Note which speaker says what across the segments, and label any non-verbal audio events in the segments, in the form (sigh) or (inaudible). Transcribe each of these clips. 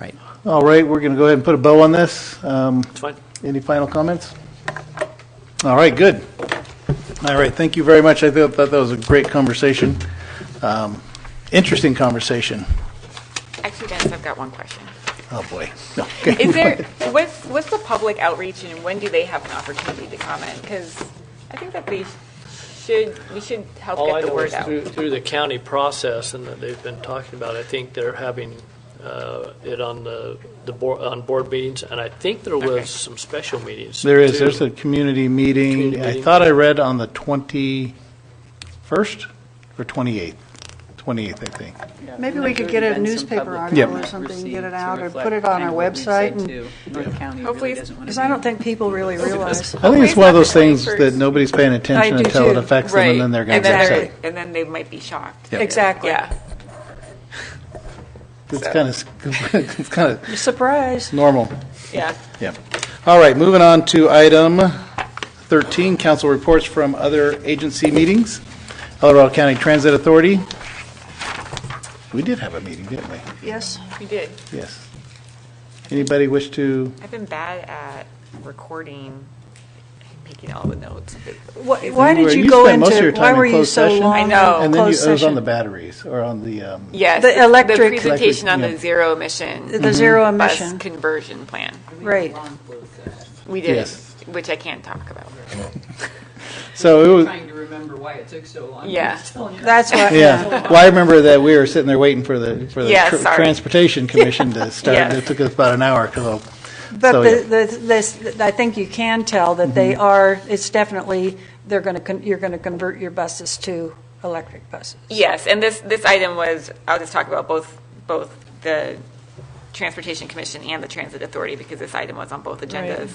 Speaker 1: Right.
Speaker 2: All right, we're going to go ahead and put a bow on this. Um,
Speaker 3: It's fine.
Speaker 2: Any final comments? All right, good. All right, thank you very much. I thought thought that was a great conversation. Um, Interesting conversation.
Speaker 4: Actually, Dennis, I've got one question.
Speaker 2: Oh, boy. Okay.
Speaker 4: Is there, what's, what's the public outreach and when do they have an opportunity to comment? Because I think that they should, we should help
Speaker 3: All
Speaker 4: get
Speaker 3: I
Speaker 4: the
Speaker 3: know
Speaker 4: word
Speaker 3: is
Speaker 4: out.
Speaker 3: through, through the county process and that they've been talking about, I think they're having uh, it on the, the board, on board meetings, and I think there
Speaker 4: Okay.
Speaker 3: was some special meetings.
Speaker 2: There is,
Speaker 3: too.
Speaker 2: there's a community meeting,
Speaker 3: Community
Speaker 2: I
Speaker 3: meeting.
Speaker 2: thought I read on the 21st or 28th? 28th, I think.
Speaker 5: Maybe we could get a newspaper
Speaker 2: Yep.
Speaker 5: article or something, get it out, or put it on our website, and-
Speaker 4: Hopefully-
Speaker 5: because I don't think people
Speaker 2: (laughs)
Speaker 5: really realize.
Speaker 2: I think
Speaker 4: Hopefully
Speaker 2: it's
Speaker 4: it's
Speaker 2: one of
Speaker 4: not
Speaker 2: those
Speaker 4: the
Speaker 2: things
Speaker 4: 21st.
Speaker 2: that nobody's paying attention
Speaker 5: I do
Speaker 2: until it
Speaker 5: too.
Speaker 2: affects them,
Speaker 4: Right.
Speaker 2: and then they're going
Speaker 4: And
Speaker 2: to
Speaker 4: then
Speaker 2: get
Speaker 4: they're-
Speaker 2: upset.
Speaker 4: And then they might be shocked.
Speaker 2: Yep.
Speaker 5: Exactly.
Speaker 4: Yeah.
Speaker 2: It's kind of, (laughs) it's kind of
Speaker 5: Surprise.
Speaker 2: normal.
Speaker 4: Yeah.
Speaker 2: Yeah. All right, moving on to item 13, council reports from other agency meetings. Colorado County Transit Authority. We did have a meeting, didn't we?
Speaker 5: Yes.
Speaker 4: We did.
Speaker 2: Yes. Anybody wish to,
Speaker 4: I've been bad at recording, making all the notes.
Speaker 5: Why why
Speaker 2: were-
Speaker 5: did
Speaker 2: you
Speaker 5: you go
Speaker 2: spent most of your
Speaker 5: into,
Speaker 2: time
Speaker 5: why
Speaker 2: in
Speaker 5: were you
Speaker 2: closed
Speaker 5: so
Speaker 2: session?
Speaker 5: long?
Speaker 4: I
Speaker 5: in
Speaker 4: know.
Speaker 2: and then you,
Speaker 5: closed
Speaker 2: it was on the
Speaker 5: session?
Speaker 2: batteries or on the, um,
Speaker 4: Yes.
Speaker 5: The electric-
Speaker 4: presentation on
Speaker 2: yeah.
Speaker 4: the zero emission.
Speaker 5: The zero
Speaker 4: bus
Speaker 5: emission,
Speaker 4: Conversion plan.
Speaker 5: right.
Speaker 4: We did,
Speaker 2: Yes.
Speaker 4: which I can't talk about.
Speaker 2: so it was,
Speaker 6: Trying to remember why it took so long.
Speaker 4: Yeah.
Speaker 6: It's telling you.
Speaker 5: That's what,
Speaker 2: Yeah,
Speaker 5: yeah.
Speaker 2: well, I remember that we were sitting there waiting for the, for the
Speaker 4: Yeah,
Speaker 2: tr-
Speaker 4: sorry.
Speaker 2: Transportation Commission to start,
Speaker 4: Yes.
Speaker 2: it took us about an hour, because
Speaker 5: But
Speaker 2: So, Mm-hmm.
Speaker 5: the- the- this, I think you can tell that they are, it's definitely, they're going to, you're going to convert your buses to electric buses.
Speaker 4: Yes, and this, this item was, I'll just talk about both, both the Transportation Commission and the Transit Authority, because this item was on both agendas.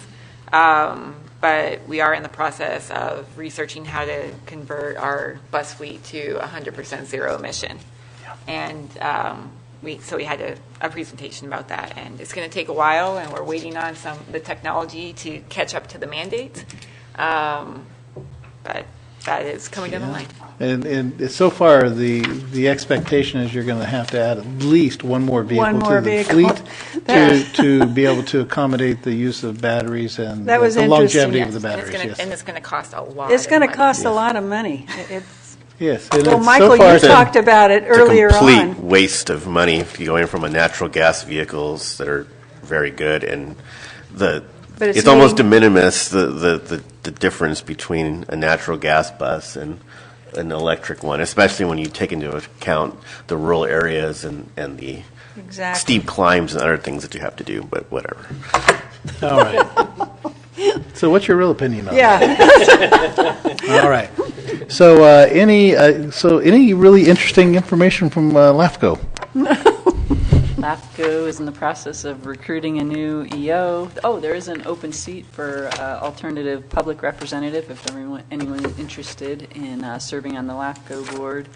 Speaker 4: Um, But we are in the process of researching how to convert our bus fleet to 100% zero emission. And um, we, so we had a, a presentation about that, and it's going to take a while, and we're waiting on some, the technology to catch up to the mandates. Um, But that is coming down the line.
Speaker 2: and, and so far, the, the expectation is you're going to have to add at least one more vehicle to
Speaker 5: more
Speaker 2: the
Speaker 5: vehicle. (laughs)
Speaker 2: fleet to,
Speaker 5: That-
Speaker 2: to be able to accommodate the use of batteries and
Speaker 5: That was
Speaker 2: the
Speaker 5: interesting,
Speaker 2: longevity
Speaker 5: yes.
Speaker 2: of the
Speaker 4: And it's
Speaker 2: batteries,
Speaker 4: gonna- And
Speaker 2: yes.
Speaker 4: it's going to cost a lot.
Speaker 5: It's going to
Speaker 4: of money.
Speaker 5: cost a lot of money. It- it's-
Speaker 2: Yes. and
Speaker 5: Well,
Speaker 2: it's so
Speaker 5: Michael, you
Speaker 2: far-
Speaker 5: talked about it earlier
Speaker 7: It's a complete
Speaker 5: on.
Speaker 7: waste of money if you're going from a natural gas vehicles that are very good and the,
Speaker 5: But it's
Speaker 7: it's almost de
Speaker 5: meeting-
Speaker 7: minimis, the, the, the- the difference between a natural gas bus and an electric one, especially when you take into account the rural areas and, and the
Speaker 5: Exactly.
Speaker 7: steep climbs and other things that you have to do, but whatever.
Speaker 2: All right.
Speaker 5: (laughs)
Speaker 2: So what's your real opinion on that?
Speaker 5: Yeah,
Speaker 2: All right. So uh, any, uh, so any really interesting information from uh, LAFCO?
Speaker 6: LAFCO is in the process of recruiting a new EO. Oh, there is an open seat for uh, alternative public representative if everyone, anyone is interested in uh, serving on the LAFCO board.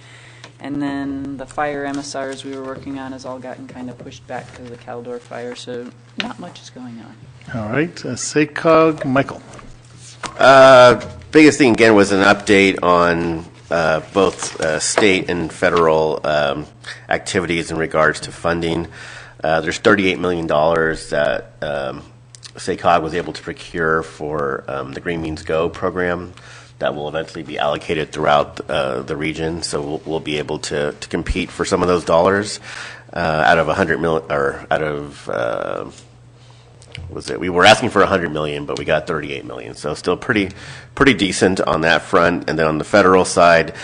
Speaker 6: And then the fire MSRs we were working on has all gotten kind of pushed back because of the Caldor fire, so not much is going on.
Speaker 2: All right, uh, SACOG, Michael.
Speaker 7: Uh, biggest thing again was an update on uh, both uh, state and federal um, activities in regards to funding. Uh, there's 38 million dollars that um, SACOG was able to procure for um, the Green Means Go program that will eventually be allocated throughout uh, the region. So we'll, we'll be able to, to compete for some of those dollars uh, out of 100 mil or out of uh, was it? We were asking for 100 million, but we got 38 million. So still pretty, pretty decent on that front. And then on the federal side,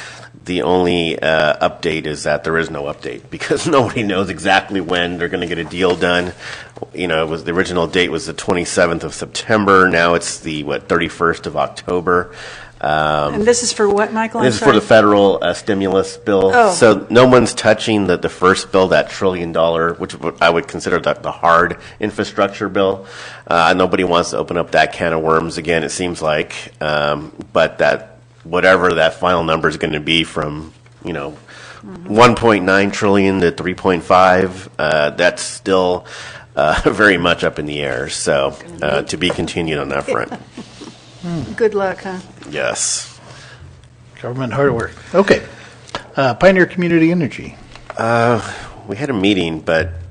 Speaker 7: the only uh, update is that there is no update (laughs) because nobody knows exactly when they're going to get a deal done. You know, it was the original date was the 27th of September. Now it's the what 31st of October. Um,
Speaker 5: and this is for what, Michael? I'm
Speaker 7: this is for the
Speaker 5: sorry.
Speaker 7: federal uh, stimulus bill.
Speaker 5: Oh.
Speaker 7: So no one's touching the, the first bill, that trillion dollar, which w- I would consider the, the hard infrastructure bill. Uh, nobody wants to open up that can of worms again, it seems like. Um, but that, whatever that final number is going to be from, you know, 1.9 trillion to 3.5, uh, that's still uh, (laughs) very much up in the air. So uh, to be continued on that front.
Speaker 5: Good luck, huh?
Speaker 7: Yes.
Speaker 2: Government hardware. Okay. Uh, Pioneer Community Energy.
Speaker 7: Uh, we had a meeting, but